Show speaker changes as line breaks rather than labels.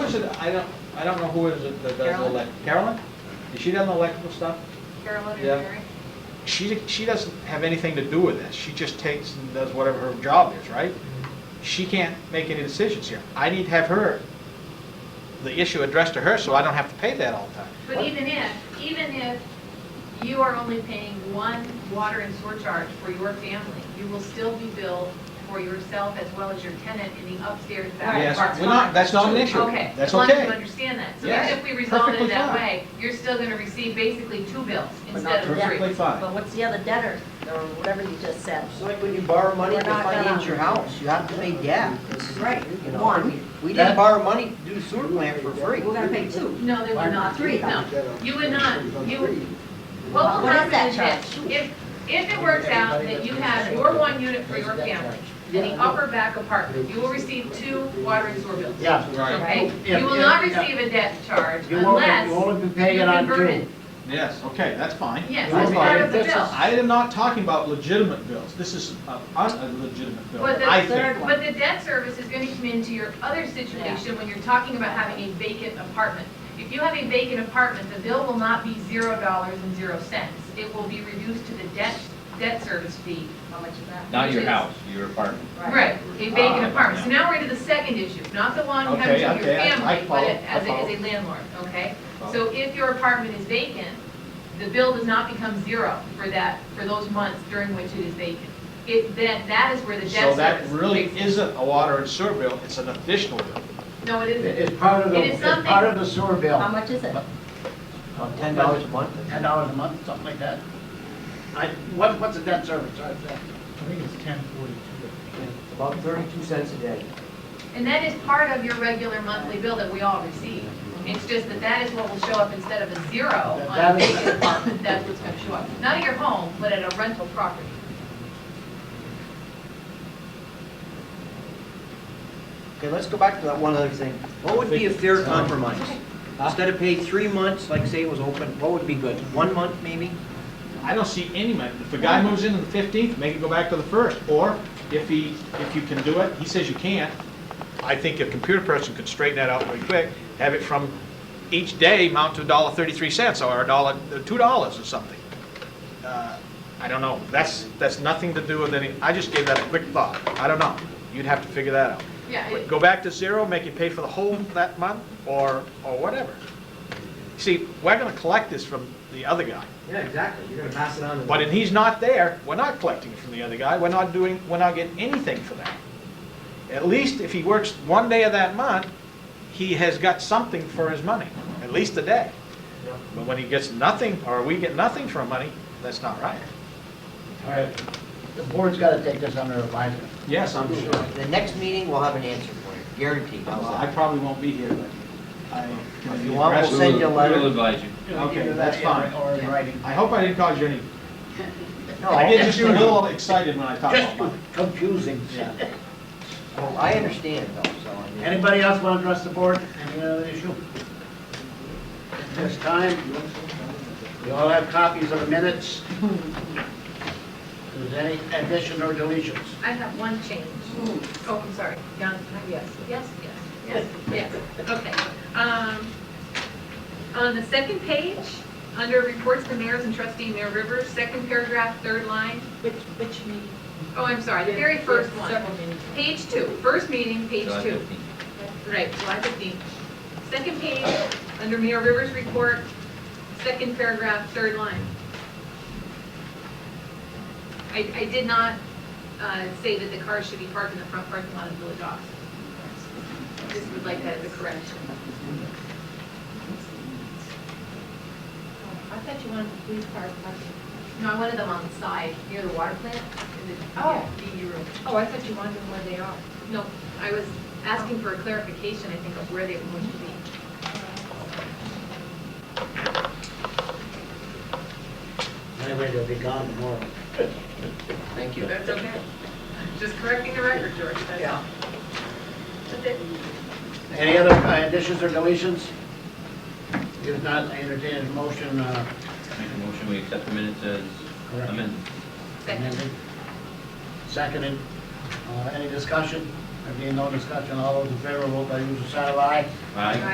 person, I don't, I don't know who is it that does
Carolyn?
elect, Carolyn? Is she done the electrical stuff?
Carolyn and
Yeah.
Mary?
She, she doesn't have anything to do with this, she just takes and does whatever her job is, right? She can't make any decisions here. I need to have her, the issue addressed to her, so I don't have to pay that all the time.
But even if, even if you are only paying one water and sewer charge for your family, you will still be billed for yourself as well as your tenant in the upstairs back
Yes,
apartment.
we're not, that's not an issue.
Okay, as
That's
long as
okay.
you understand that. So
Yes,
even if we resolve it
perfectly fine.
that way, you're still going to receive basically two bills
But not
instead of three.
Perfectly fine.
But what's the other debtor, or whatever you just said?
It's like when you borrow money
We're
to
not gonna-
finance your house, you have to pay debt.
Right,
You know,
one.
we- We didn't borrow money to do the sewer plant for free.
We're gonna pay two.
No, there were not three, no. You would not, you, what will
What
happen
is that
is this,
charge?
if, if it works out that you have your one unit for your family and the upper back apartment, you will receive two water and sewer bills.
Yeah.
Right,
Okay?
Oh, Yeah,
You will
yeah,
not
yeah.
receive a debt charge
You won't, you
unless,
won't be paying it
you
on
convert
two.
it.
yes, okay, that's fine.
yes,
That's
it's part of the
fine.
bill.
I am not talking about legitimate bills, this is a un- a legitimate bill,
But the
I
third
think.
one-
But the debt service is going to come into your other situation when you're talking about having a vacant apartment. If you have a vacant apartment, the bill will not be zero dollars and zero cents. It will be reduced to the debt, debt service fee.
How much is that?
Not your
Which is-
house, your apartment.
Right, a vacant apartment. So now we're into the second issue, not the one having
Okay,
to do with your
okay, I- I
family, but
follow,
it- as
I
a, as
follow.
a landlord, okay? So if your apartment is vacant, the bill does not become zero for that, for those months during which it is vacant. It, that, that is where the
So
debt
that
service.
really
kicks in.
isn't a water and sewer bill, it's an additional bill.
No, it isn't.
It's part of the,
It is
it's part
something-
of the sewer
How
bill,
much is it?
About Oh, ten dollars a month.
ten dollars a month, something like that. I, what, what's the debt service, I think?
I think it's ten forty-two.
About thirty-two cents a day.
And that is part of your regular monthly bill that we all receive. It's just that that is what will show up instead of a zero on
That- that
the
is-
vacant apartment, that's what's gonna show up. Not at your home, but at a rental property.
Okay, let's go back to that one other thing. What would be a fair compromise? Instead of pay three months, like say it was open, what would be good? One month maybe?
I don't see any money, if the guy moves in on the fifteenth, make it go back to the first, or if he, if you can do it, he says you can't. I think a computer person could straighten that out pretty quick, have it from each day mount to a dollar thirty-three cents, or a dollar, two dollars or something. Uh, I don't know, that's, that's nothing to do with any, I just gave that a quick thought, I don't know, you'd have to figure that out.
Yeah, it-
Go back to zero, make you pay for the whole that month, or, or whatever. See, we're gonna collect this from the other guy.
Yeah, exactly. You're gonna pass it on to
But if he's not there, we're not collecting it from the other guy, we're not doing, we're not getting anything for that. At least if he works one day of that month, he has got something for his money, at least a day.
Yeah.
But when he gets nothing, or we get nothing for our money, that's not right.
All right, the board's gotta take this under advisement.
Yes, I'm
The next meeting, we'll have an answer for you, guaranteed. How's that?
probably won't be here, but I
If you want, we'll send you a
We'll
letter.
advise you.
Okay,
Either that
that's
in
fine.
Or in writing.
I hope I didn't cause you any, I
No,
get just a little excited when I talk about money.
Just confusing.
Yeah.
well, Oh, I understand though, so I mean.
Anybody else wanna address the board, any other issue? At this time, we all have copies of the minutes. Is there any addition or deletions?
I have one change. Oh, I'm sorry, John, uh, yes, yes, yes, yes, yes, okay. Um, On the second page, under reports to mayors and trustee Mayor Rivers, second paragraph, third line,
Which, which meeting?
oh, I'm sorry, the very first one.
Several meetings.
Page two, first meeting, page
July
two.
15th.
Right, July 15th. Second page, under Mayor Rivers' report, second paragraph, third line. I, I did not uh, say that the cars should be parked in the front parking lot of Village Office. Just would like that as a correction.
Oh, I thought you wanted the police car parking.
No, I wanted them on the side, near the water plant, in the
Oh.
DE room.
Oh, I thought you wanted them where they are.
No, I was asking for a clarification, I think, of where they were going to be.
Anyway, they'll be gone tomorrow.
Thank you. That's okay. Just correcting the record, George, that's all. That's it.
Any other uh, additions or deletions? If not, I entertain a motion uh,
Make a motion, we accept the minutes as amended.
Second.
amended. Seconded. Uh, Any discussion? There being no discussion, all those in favor, vote by usual sign of aye.
Aye.